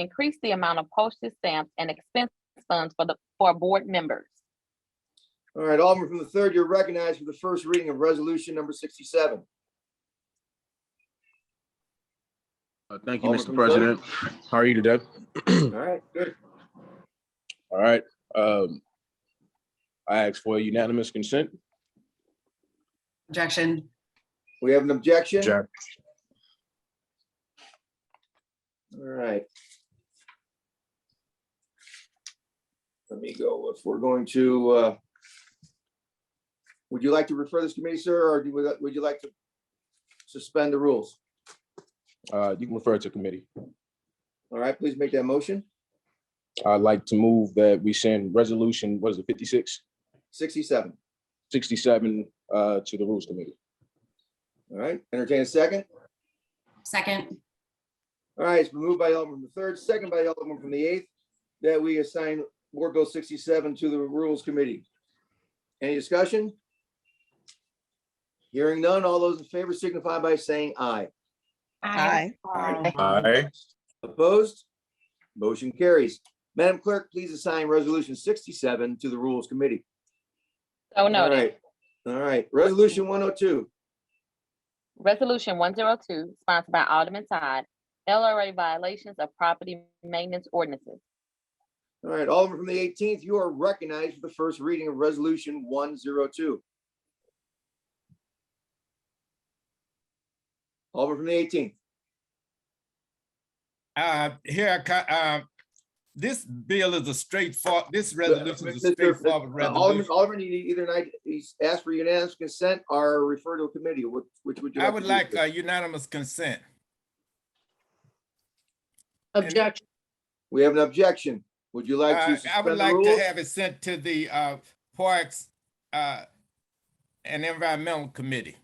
increase the amount of postage stamps and expense funds for the, for board members. All right, Alderman from the third, you're recognized for the first reading of resolution number sixty-seven. Uh, Thank you, Alderman Mr. from the third. President. How are you today? All right, good. All right. um, I ask for unanimous consent. Objection. We have an objection? All Jack. right. Let me go. If we're going to, uh, would you like to refer this committee, sir, or do you- would you like to suspend the rules? Uh, You can refer it to committee. All right, please make that motion. I'd like to move that we send resolution, what is it, 56, Sixty-seven. 67 uh, to the Rules Committee. All right, entertain a second. Second. All right, it's been moved by Alderman from the third, second by Alderman from the eighth, that we assign Board Bill sixty-seven to the Rules Committee. Any discussion? Hearing none, all those in favor signify by saying aye. Aye. Aye. Opposed? Motion carries. Madam Clerk, please assign Resolution sixty-seven to the Rules Committee. So All noted. right. All right, Resolution one oh two. Resolution one zero two, sponsored by Alderman Todd, LRA violations of property maintenance ordinances. All right, Alderman from the eighteenth, you are recognized for the first reading of Resolution one zero two. Alderman from the eighteenth. Uh, here, I co- uh, this bill is a straightforward, this resolution is a straightforward Alderman, resolution. Alderman, uh, you either night, he's asked for unanimous consent or refer to a committee, which, which would you? I would to do, like sir? uh, unanimous consent. Objection, We have an objection. Would you like Uh, to I would suspend the like to rules? have it sent to the, uh, Parks, uh, and Environmental Committee.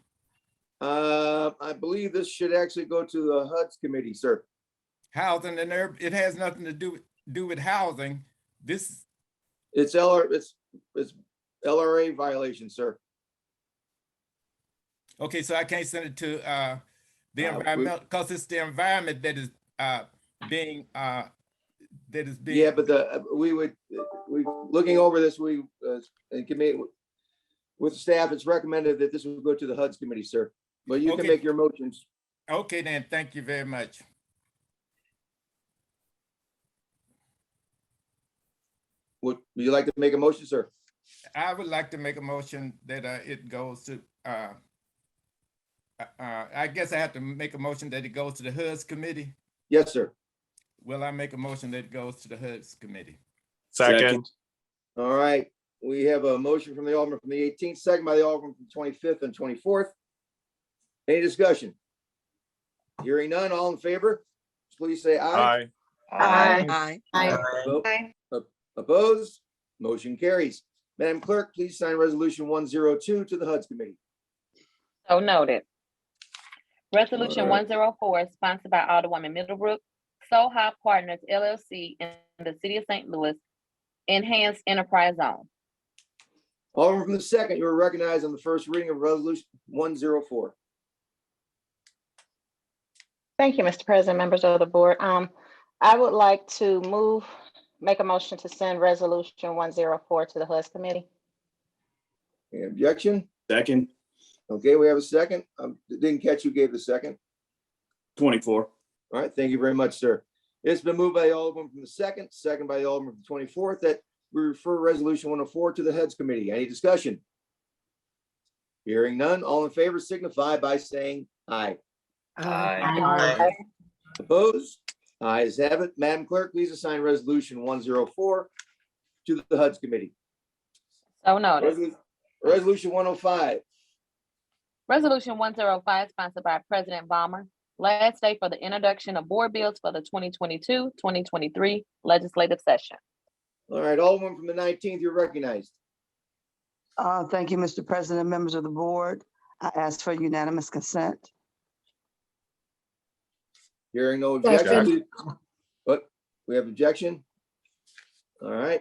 Uh, I believe this should actually go to the HUD's committee, sir. Housing and urb, it has nothing to do, with do with housing. This, It's LR, it's, it's LRA violation, sir. okay, so I can't send it to, uh, the Uh, we- environmental, because it's the environment that is, uh, being, uh, that is being. Yeah, but the, uh, we would, we, looking over this, we, uh, in committee, with staff, it's recommended that this would go to the HUD's committee, sir. But you can Okay. make your motions. Okay, then, thank you very much. Would, would you like to make a motion, sir? I would like to make a motion that uh, it goes to, uh, uh, uh, I guess I have to make a motion that it goes to the HUDs committee. Yes, sir. Will I make a motion that it goes to the HUDs committee? Second. All right, we have a motion from the Alderman from the eighteenth, second by the Alderman from twenty-fifth and twenty-fourth. Any discussion? Hearing none, all in favor, please say aye. Aye. Aye. Vote- Opposed, motion carries. Madam Clerk, please sign Resolution one zero two to the HUD's Committee. So noted. Resolution Alright. one zero four, sponsored by Alderwoman Middlebrook, Soha Partners LLC in the city of St. Louis, Enhanced Enterprise Zone. Alderman from the second, you are recognized on the first reading of Resolution one zero four. Thank you, Mr. President, members of the board. Um, I would like to move, make a motion to send resolution one zero four to the HUS committee. Any objection? Second, Okay, we have a second. Um, didn't catch who gave the second. twenty-four. All right, thank you very much, sir. It's been moved by the Alderman from the second, second by the Alderman from the twenty-fourth, that we refer Resolution one oh four to the Heads Committee. Any discussion? Hearing none, all in favor signify by saying aye. Aye. Opposed? Ayes have it. Madam Clerk, please assign Resolution one zero four to the HUD's Committee. So noted. Resolu- Resolution one oh five. Resolution one zero five, sponsored by President Ballmer, last day for the introduction of board bills for the 2022-2023 legislative session. All right, Alderman from the nineteenth, you're recognized. Uh, Thank you, Mr. President, members of the board. I ask for unanimous consent. Hearing no Second. objection. But we have objection. All right.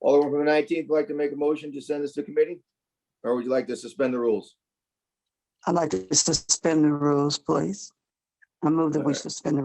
Alderman from the nineteenth, would like to make a motion to send this to committee? Or would you like to suspend the rules? I'd like to suspend the rules, please. I move that we Alright. suspend the